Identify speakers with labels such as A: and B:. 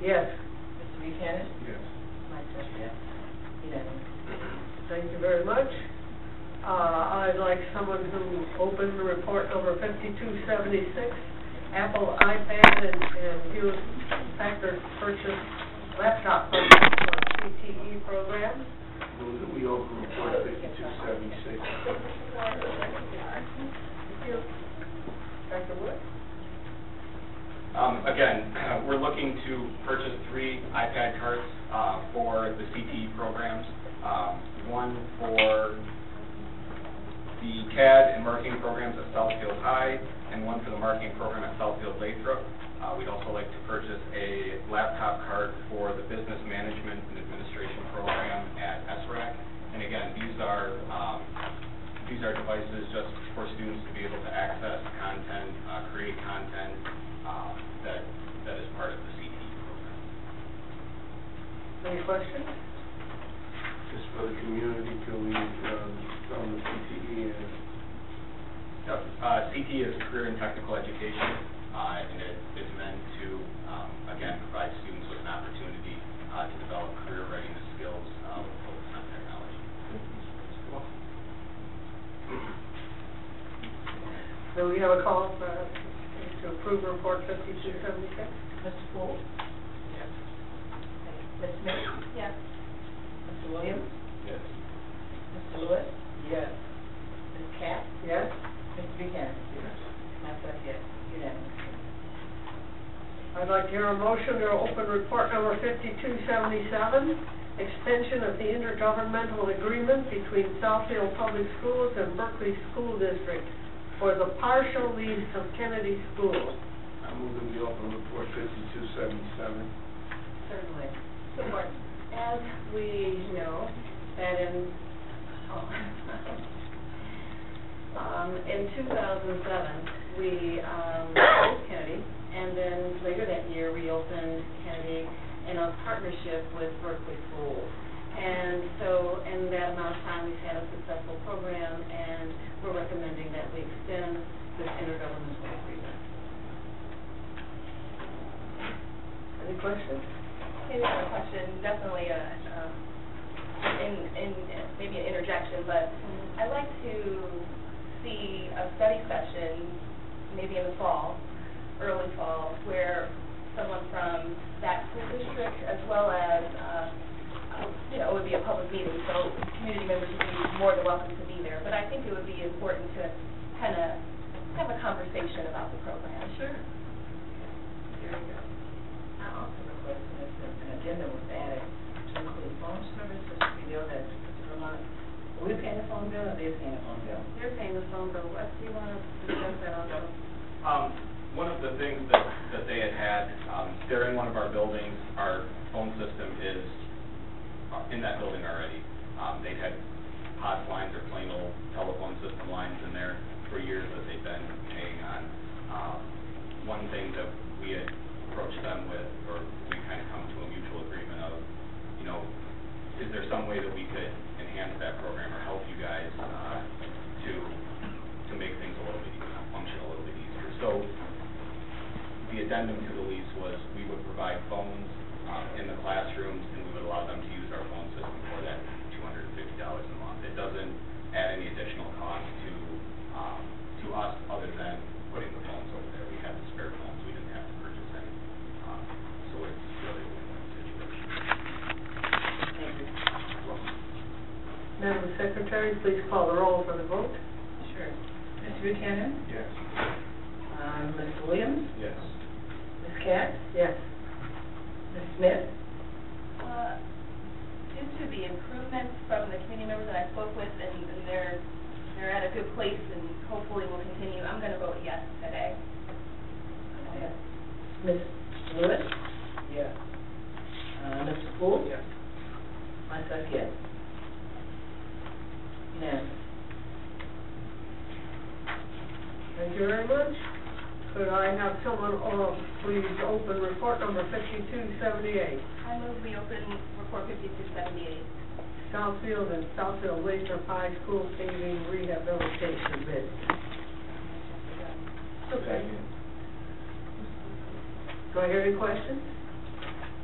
A: Uh, was the report number fifty-two seventy-six, Apple iPad and, and Hewlett Packard purchase, laptop purchase for CTE E program.
B: Move that we open report fifty-two seventy-six.
A: Dr. Wood?
C: Um, Again, we're looking to purchase three iPad carts uh, for the CTE programs. Um, One for the CAD and marketing programs at Southfield High, and one for the marketing program at Southfield Lathrop. Uh, We'd also like to purchase a laptop cart for the business management and administration program at SRAC. And again, these are, um, these are devices just for students to be able to access content, uh, create content um, that, that is part of the CTE program.
A: Any questions?
B: Just for the community till we, um, on the E CTE and
C: Yep. Uh, CTE is Career and Technical Education, uh, and it is meant to, um, again, provide students with an opportunity uh, to develop career readiness skills uh, with focus on technology.
A: Do we have a call for, to approve report fifty-two seventy-six?
D: Mr. Poole?
C: Yes.
D: Ms. Smith? Yes. Mr. Williams?
C: Yes.
D: Mr. Lewis? Yes. Ms. Katz?
A: Yes?
D: Mr. Buchanan? Yes. Myself, yes, unanimous.
A: I'd like to hear a motion to open report number fifty-two seventy-seven, extension of the intergovernmental agreement between Southfield Public Schools and Berkeley School District for the partial lease of Kennedy School.
B: I move that we open report fifty-two seventy-seven.
D: Certainly.
E: Support. As we know, that in, oh, um, in 2007, we um, closed Kennedy, and then later that year, we opened Kennedy in a partnership with Berkeley Schools. And so, in that amount of time, we've had a successful program, and we're recommending that we extend this intergovernmental agreement.
A: Any questions?
F: Maybe not a question, definitely a, um, in, in, maybe an interjection, but I'd like to see a study session, maybe in the fall, early fall, where someone from that school district, as well as, uh, you know, it would be a public meeting, so community members would be more than welcome to be there. But I think it would be important to kind of have a conversation about the program.
E: Sure.
D: I also request that an agenda was added to include phone service, which we know that Vermont, are we paying the phone bill or they paying the phone bill?
E: They're paying the phone bill. Wes, do you want to discuss that on the?
C: Um, one of the things that, that they had had, um, they're in one of our buildings, our phone system is uh, in that building already. Um, they've had POTS lines or plain old telephone system lines in there for years that they've been paying on. Um, one thing that we had approached them with, or we kind of come to a mutual agreement of, you know, is there some way that we could enhance that program or help you guys, uh, to to make things a little bit, easier, function a little bit easier. So the addendum to the lease was we would provide phones uh, in the classrooms and we would allow them to use our phone system for that $250 a month. It doesn't add any additional cost to, um, to us other than putting the phones over there. We had the spare phones, we didn't have to purchase any. Um, So it's really a win-win situation.
A: Madam Secretary, please call the roll for the vote.
D: Sure. Mr. Buchanan?
B: Yes.
D: Um, Mr. Williams?
B: Yes.
D: Ms. Katz?
A: Yes.
D: Ms. Smith?
F: Uh, Due to the improvements from the community members that I spoke with, and and they're, they're at a good place, and hopefully will continue, I'm going to vote yes today.
D: Ms. Lewis? Yes. Uh, Mr. Poole? Yes. Myself, yes. Unanimous.
A: Thank you very much. Could I have someone, uh, please open report number fifty-two seventy-eight,
F: I move we open report fifty-two seventy-eight.
A: Southfield and Southfield Lathrop High School paving rehabilitation bid.
B: Second.
A: Do I hear any questions?